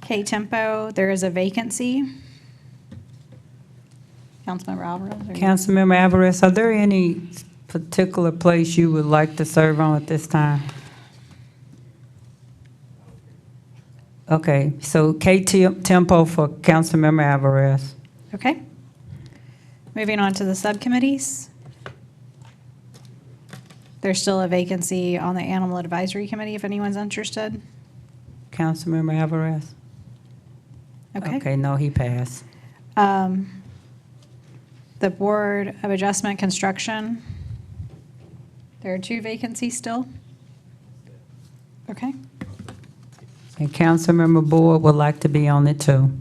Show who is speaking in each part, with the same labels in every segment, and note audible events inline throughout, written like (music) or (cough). Speaker 1: K Tempo, there is a vacancy. Councilmember Alvarez? are you-
Speaker 2: Councilmember Alvarez, are there any particular place you would like to serve on at this time? Okay, so K Tem- Tempo for Councilmember Alvarez.
Speaker 1: Okay. Moving on to the subcommittees. There's still a vacancy on the Animal Advisory Committee if anyone's interested.
Speaker 2: Councilmember Alvarez?
Speaker 1: Okay.
Speaker 2: Okay, no, he passed.
Speaker 1: Um, The Board of Adjustment Construction, there are two vacancies still. Okay.
Speaker 2: And Councilmember Boyd would like to be on it too.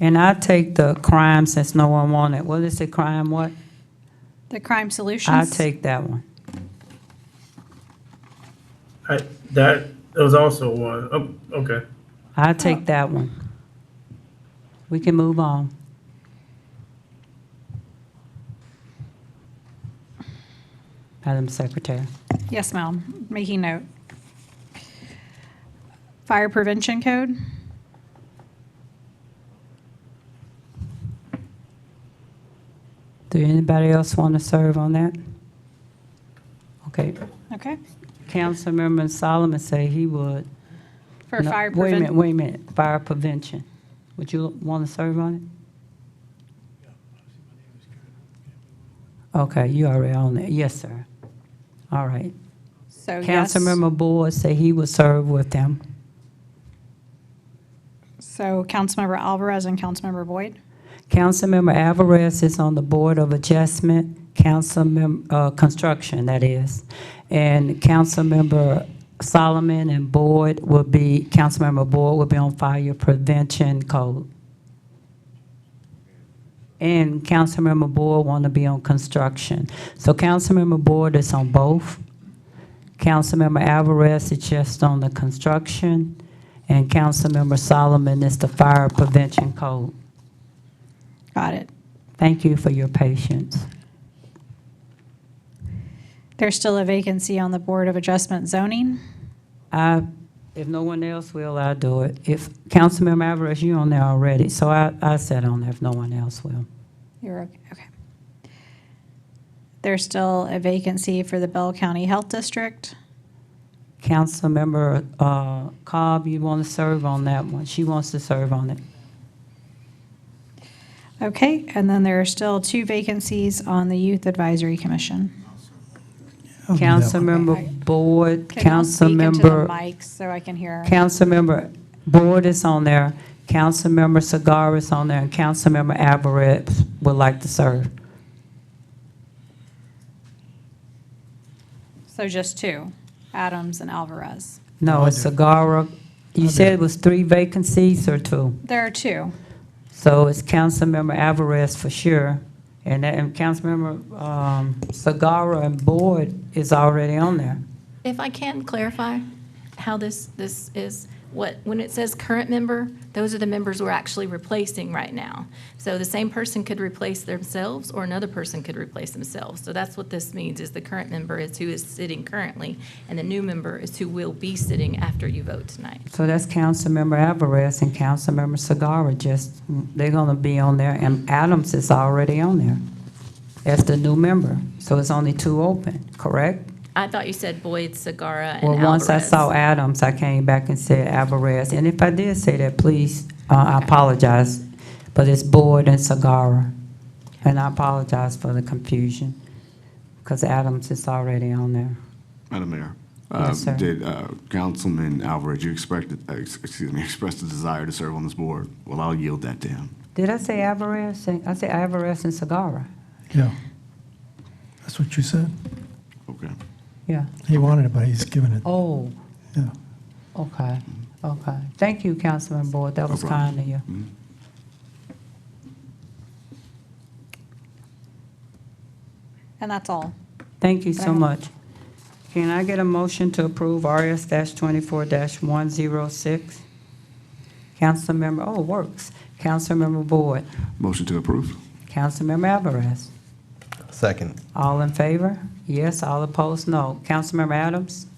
Speaker 2: And I take the crime since no one wanted. What is it, crime what?
Speaker 1: The Crime
Speaker 2: I
Speaker 1: Solutions.
Speaker 2: take that one.
Speaker 3: I, that, that was also one, oh, okay.
Speaker 2: I
Speaker 1: Oh.
Speaker 2: take that one. We can move on. Madam Secretary.
Speaker 1: Yes, ma'am, making note. Fire prevention code?
Speaker 2: Do anybody else want to serve on that? Okay,
Speaker 1: Okay,
Speaker 2: Councilmember Solomon say he would.
Speaker 1: for
Speaker 2: No,
Speaker 1: fire
Speaker 2: Wait a minute,
Speaker 1: prevention.
Speaker 2: wait a minute, fire prevention. Would you want to serve on it? Okay, you already on it, yes, sir. All right.
Speaker 1: So yes,
Speaker 2: Councilmember Boyd said he would serve with them.
Speaker 1: so Councilmember Alvarez and Councilmember Boyd.
Speaker 2: Councilmember Alvarez is on the Board of Adjustment, Councilmember, uh, Construction, that is. And Councilmember Solomon and Boyd will be, Councilmember Boyd will be on Fire Prevention Code. And Councilmember Boyd want to be on Construction. So Councilmember Boyd is on both. Councilmember Alvarez is just on the Construction, and Councilmember Solomon is the Fire Prevention Code.
Speaker 1: Got it.
Speaker 2: Thank you for your patience.
Speaker 1: There's still a vacancy on the Board of Adjustment zoning.
Speaker 2: I, if no one else will, I'll do it. If, Councilmember Alvarez, you on there already, so I, I sat on there if no one else will.
Speaker 1: You're okay, okay. There's still a vacancy for the Bell County Health District.
Speaker 2: Councilmember, uh, Cobb, you want to serve on that one? She wants to serve on it.
Speaker 1: Okay, and then there are still two vacancies on the Youth Advisory Commission.
Speaker 4: I'll do that one.
Speaker 2: Councilmember Boyd,
Speaker 1: Can y'all speak into the
Speaker 2: Councilmember,
Speaker 1: mics so I can hear?
Speaker 2: Councilmember Boyd is on there, Councilmember Segar is on there, and Councilmember Alvarez would like to serve.
Speaker 1: So just two, Adams and Alvarez.
Speaker 2: No,
Speaker 4: I'll
Speaker 2: it's
Speaker 4: do
Speaker 2: Segar, you
Speaker 4: I'll do
Speaker 2: said
Speaker 4: it.
Speaker 2: it was three vacancies or two?
Speaker 1: There are two.
Speaker 2: So it's Councilmember Alvarez for sure, and that, and Councilmember, um, Sagara and Boyd is already on there.
Speaker 5: If I can clarify how this, this is, what, when it says current member, those are the members we're actually replacing right now. So the same person could replace themselves, or another person could replace themselves. So that's what this means, is the current member is who is sitting currently, and the new member is who will be sitting after you vote tonight.
Speaker 2: So that's Councilmember Alvarez and Councilmember Sagara, just, they're gonna be on there, and Adams is already on there as the new member. So it's only two open, correct?
Speaker 5: I thought you said Boyd, Sagara, and
Speaker 2: Well,
Speaker 5: Alvarez.
Speaker 2: once I saw Adams, I came back and said Alvarez, and if I did say that, please, uh, I apologize, but it's Boyd and Sagara. And I apologize for the confusion, because Adams is already on there.
Speaker 6: Madam Mayor.
Speaker 2: Yes,
Speaker 6: uh,
Speaker 2: sir.
Speaker 6: Did uh, Councilman Alvarez, you expected, uh, ex- excuse me, (laughs) expressed a desire to serve on this board? Well, I'll yield that to him.
Speaker 2: Did I say Alvarez? I said Alvarez and Sagara,
Speaker 4: Yeah. That's what you said.
Speaker 6: Okay.
Speaker 2: yeah.
Speaker 4: He wanted it, but he's given it.
Speaker 2: Oh,
Speaker 4: Yeah.
Speaker 2: okay, okay. Thank you, Councilman Boyd, that was
Speaker 6: No problem.
Speaker 2: kind of you.
Speaker 6: Mhm.
Speaker 1: And that's all.
Speaker 2: Thank you so
Speaker 1: Right.
Speaker 2: much. Can I get a motion to approve RS twenty-four one zero six? Councilmember, oh, works. Councilmember Boyd,
Speaker 6: Motion to approve?
Speaker 2: Councilmember Alvarez.
Speaker 7: Second.
Speaker 2: All in favor? Yes, all opposed, no. Councilmember Adams?